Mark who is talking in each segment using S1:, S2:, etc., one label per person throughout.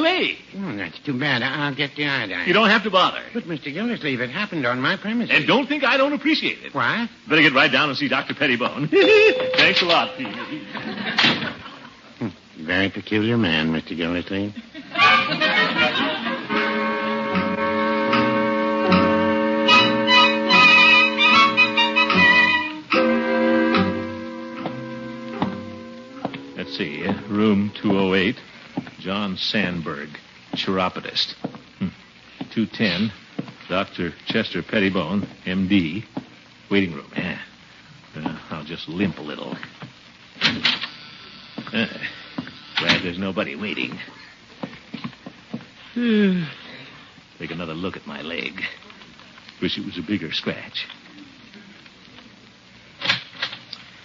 S1: me.
S2: Oh, that's too bad. I- I'll get the iodine.
S1: You don't have to bother.
S2: But, Mr. Gildersleeve, it happened on my premises.
S1: And don't think I don't appreciate it.
S2: What?
S1: Better get right down and see Dr. Pettibone. Thanks a lot, Pete.
S2: Very peculiar man, Mr. Gildersleeve.
S1: Let's see. Room 208. John Sandberg, chiropodist. Hmm. 210. Dr. Chester Pettibone, M.D. Waiting room. Yeah. Uh, I'll just limp a little. Uh, glad there's nobody waiting. Uh, take another look at my leg. Wish it was a bigger scratch.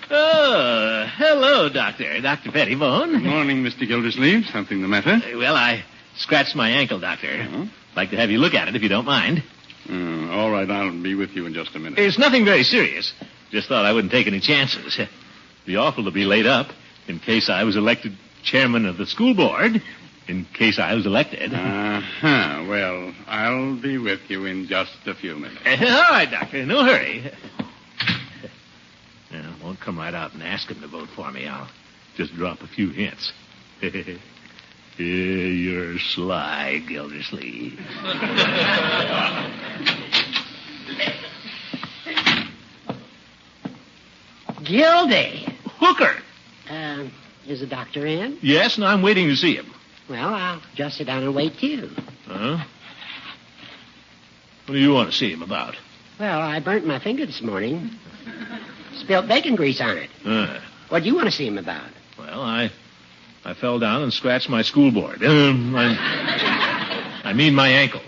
S1: Oh, hello, Doctor. Dr. Pettibone.
S3: Morning, Mr. Gildersleeve. Something the matter?
S1: Uh, Well, I scratched my ankle, Doctor. Like to have you look at it if you don't mind.
S3: Hmm, all right, I'll be with you in just a minute.
S1: It's nothing very serious. Just thought I wouldn't take any chances. Be awful to be laid up in case I was elected chairman of the school board. In case I was elected.
S3: Uh-huh. Well, I'll be with you in just a few minutes.
S1: Uh, all right, Doctor. No hurry. Now, I won't come right out and ask him to vote for me. I'll just drop a few hints. Yeah, You're sly, Gildersleeve.
S4: Gildy.
S1: Hooker!
S4: Um, is the doctor in?
S1: Yes, and I'm waiting to see him.
S4: Well, I'll just sit down and wait too.
S1: Huh? What do you want to see him about?
S4: Well, I burnt my finger this morning. Spilt bacon grease on it.
S1: Uh,
S4: What do you want to see him about?
S1: well, I I fell down and scratched my school board. Um, I, I mean my ankle.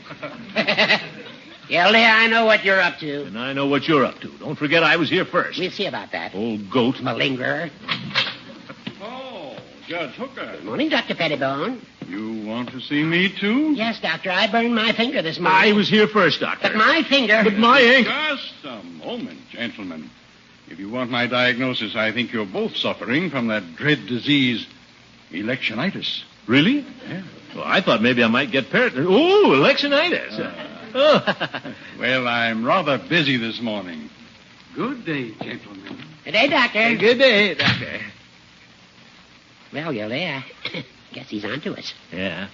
S4: Gildy, I know what you're up to.
S1: And I know what you're up to. Don't forget I was here first.
S4: We'll see about that.
S1: Old goat.
S4: Malingerer.
S3: Oh, Judge Hooker.
S4: Morning, Dr. Pettibone.
S3: You want to see me, too?
S4: Yes, doctor, I burned my finger this morning.
S1: I was here first, Doctor.
S4: But my finger.
S1: But my ankle.
S3: Just a moment, gentlemen. If you want my diagnosis, I think you're both suffering from that dread disease, electionitis.
S1: Really?
S3: Yeah.
S1: Well, I thought maybe I might get parrot. Oh, electionitis.
S4: Uh.
S1: oh.
S3: Well, I'm rather busy this morning. Good day, gentlemen.
S4: Good day, doctor.
S1: Good day, Doctor.
S4: Well, Gildy, I guess he's on to us.
S1: Yeah.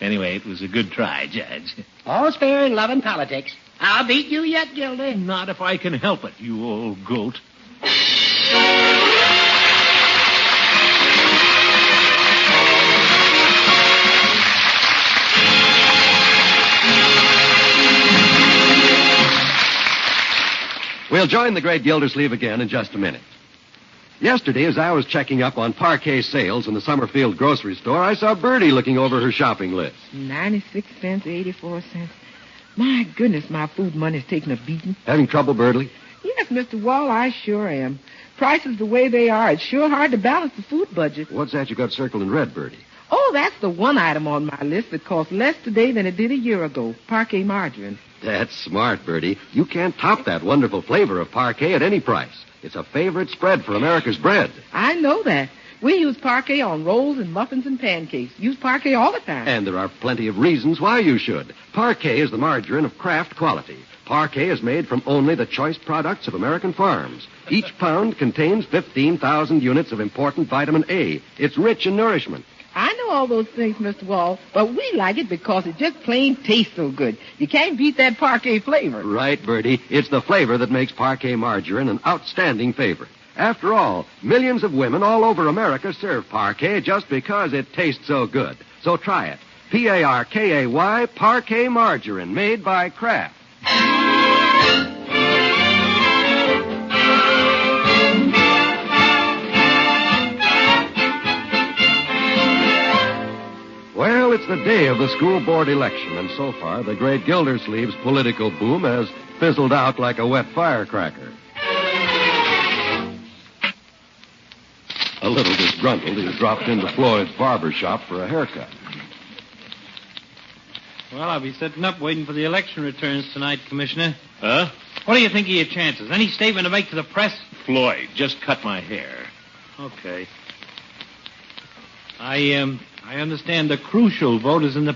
S1: Anyway, it was a good try, Judge.
S4: All's fair in love and politics. I'll beat you yet, Gildy.
S1: Not if I can help it, you old goat.
S5: We'll join the great Gildersleeve again in just a minute. Yesterday, as I was checking up on parquet sales in the Summerfield grocery store, I saw Bertie looking over her shopping list.
S6: 96 cents, 84 cents. My goodness, my food money's taking a beating.
S5: Having trouble, Birdley?
S6: Yes, Mr. Wall, I sure am. Prices the way they are, it's sure hard to balance the food budget.
S5: What's that you got circled in red, Birdie?
S6: Oh, that's the one item on my list that costs less today than it did a year ago, parquet margarine.
S5: That's smart, Birdie. You can't top that wonderful flavor of parquet at any price. It's a favorite spread for America's bread.
S6: I know that. We use parquet on rolls and muffins and pancakes. Use parquet all the time.
S5: And there are plenty of reasons why you should. Parquet is the margarine of craft quality. Parquet is made from only the choice products of American farms. Each pound contains 15,000 units of important vitamin A. It's rich in nourishment.
S6: I know all those things, Mr. Wall, but we like it because it just plain tastes so good. You can't beat that parquet flavor.
S5: Right, Bertie. It's the flavor that makes parquet margarine an outstanding favorite. After all, millions of women all over America serve parquet just because it tastes so good. So try it. P A R K A Y, parquet margarine, made by Kraft. Well, it's the day of the school board election, and so far, the great Gildersleeve's political boom has fizzled out like a wet firecracker. A little disgruntled, he dropped into Floyd's barber shop for a haircut.
S7: Well, I'll be sitting up waiting for the election returns tonight, Commissioner.
S1: Huh?
S7: What do you think of your chances? Any statement to make to the press?
S1: Floyd, just cut my hair.
S7: Okay. I um I understand the crucial vote is in the